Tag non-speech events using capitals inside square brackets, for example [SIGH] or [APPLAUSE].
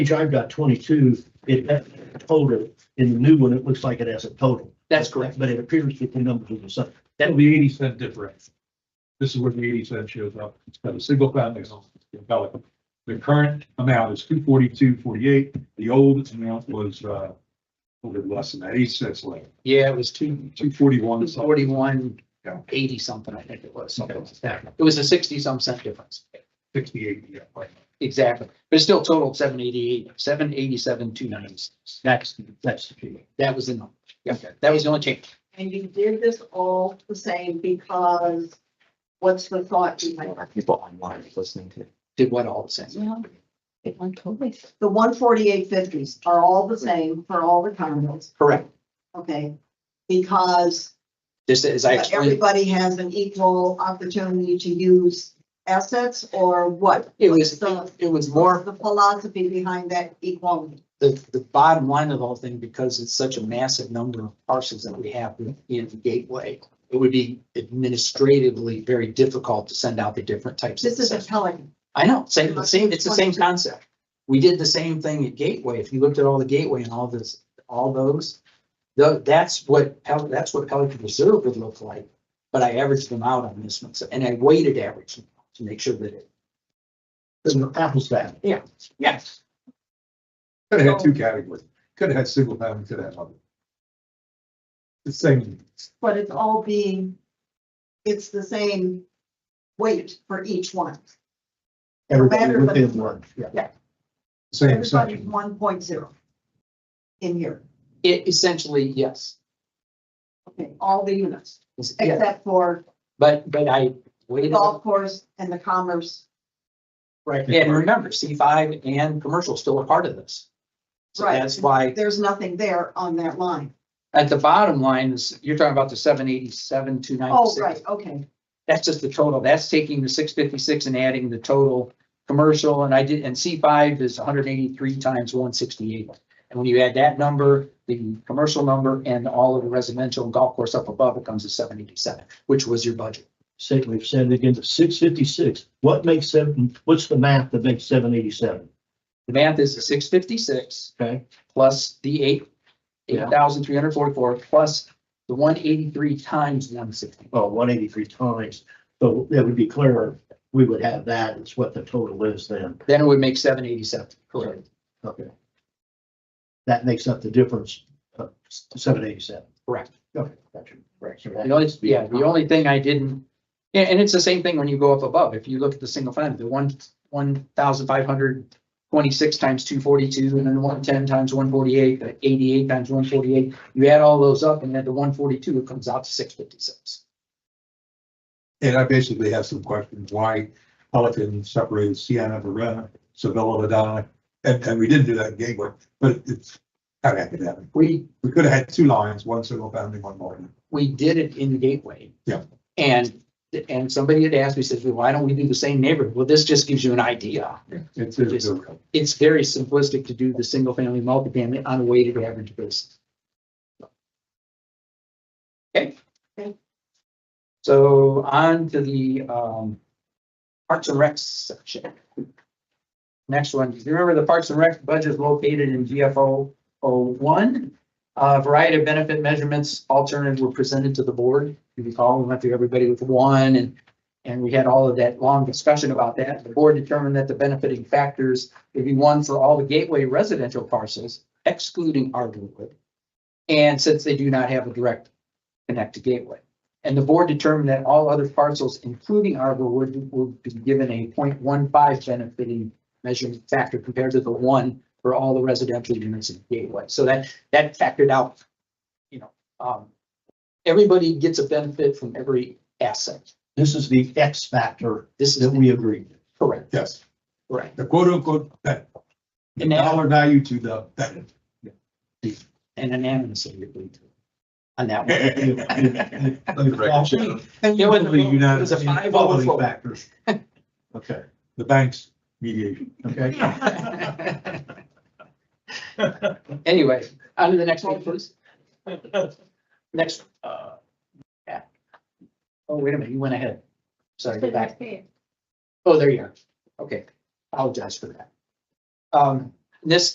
page I've got twenty-two, it has a total, in the new one, it looks like it has a total. That's correct. But it appears that the numbers are the same. That'll be eighty cent difference. This is where the eighty cent shows up. It's got a single family home in Pelican. The current amount is two forty-two, forty-eight. The old amount was, uh, a little bit less than that, eight cents less, Yeah, it was two, two forty-one. two forty-one, eighty something, I think it was, something like that. It was a sixty some cent difference. Sixty-eight, yeah, right. Exactly. But it still totaled seven eighty-eight, seven eighty-seven, two ninety-six. That's, That's the key. that was the number. Yeah, that was the only change. And you did this all the same because what's the thought behind it? people online listening to. Did what all the same. Yeah. The one forty-eight fifties are all the same for all the condos, Correct. okay? Because This is, I explained, everybody has an equal opportunity to use assets or what? it was, The it was more the philosophy behind that equality. the, the bottom line of the whole thing, because it's such a massive number of parcels that we have in Gateway. It would be administratively very difficult to send out the different types. of This is a assessments. Pelican. I know, same, the same, it's the same concept. We did the same thing at Gateway. If you looked at all the Gateway and all this, all those, tho- that's what, Pel- that's what Pelican Reserve would look like. But I averaged them out on this one, so- and I weighted average them to make sure that it, Then the apples to apples. yes, Could have had two categories. Could have had single family, could have had other. The same, But it's all being, it's the same weight for each one. Everybody Better, but- within one, yeah. same Everybody's assumption. one point zero in here, it essentially, yes. okay, all the units, It's- yeah. except for But, but I the weighted, golf course and the commerce. right, and remember, C five and commercial still a part of this. So Right. that's why There's nothing there on that line. at the bottom line is, you're talking about the seven eighty-seven, two Oh, ninety-six. right, okay. that's just the total. That's taking the six fifty-six and adding the total commercial, and I did, and C five is hundred eighty-three times one sixty-eight. And when you add that number, the commercial number and all of the residential and golf course up above, it comes to seven eighty-seven, which was your budget. Sick, we've said it again, the six fifty-six, what makes seven, what's the math that makes seven eighty-seven? The math is the six fifty-six Okay, plus the eight, Yeah. eight thousand three hundred forty-four plus the one eighty-three times one sixty. well, one eighty-three times, so that would be clearer, we would have that, it's what the total is then, Then it would make seven eighty-seven. Correct. okay. That makes up the difference, uh, seven eighty-seven. Correct. Okay, gotcha. Right, so that- The only, yeah, the only thing I didn't, yeah, and it's the same thing when you go up above. If you look at the single family, the one, one thousand five hundred twenty-six times two forty-two, and then one ten times one forty-eight, the eighty-eight times one forty-eight. You add all those up, and then the one forty-two, it comes out to six fifty-six. And I basically have some questions, why Pelican separated Sienna, Verena, Sevilla, Ladonna, and, and we didn't do that in Gateway, but it's kind of academic. We, We could have had two lines, one single family, one modern. we did it in Gateway. Yeah. And, and somebody had asked me, says, well, why don't we do the same neighborhood? Well, this just gives you an idea. It's, it's, a- It's very simplistic to do the single family, multifamily on a weighted average basis. Okay? Okay. So on to the um Parks and Rec section. Next one, do you remember the Parks and Rec budget is located in GFO 01? A variety of benefit measurements alternatives were presented to the board. You recall, we went through everybody with one and and we had all of that long discussion about that. The board determined that the benefiting factors would be one for all the gateway residential parcels excluding Ardwood. And since they do not have a direct connect to Gateway. And the board determined that all other parcels, including Arborwood, will be given a 0.15 benefiting measurement factor compared to the one for all the residential units in Gateway. So that, that factored out, you know, um, everybody gets a benefit from every asset. This is the X factor This that is we agreed. correct, yes, correct. the quote unquote, that the And now- dollar value to the, [LAUGHS] And unanimously agreed to. On that one. that. Following It was, it was a five over four. factors. Okay, The bank's mediation. okay. Anyway, on to the next one, please. Next. uh, yeah. Oh, wait a minute, you went ahead. Sorry, go back. Oh, there you are. Okay, apologize for that. Um, this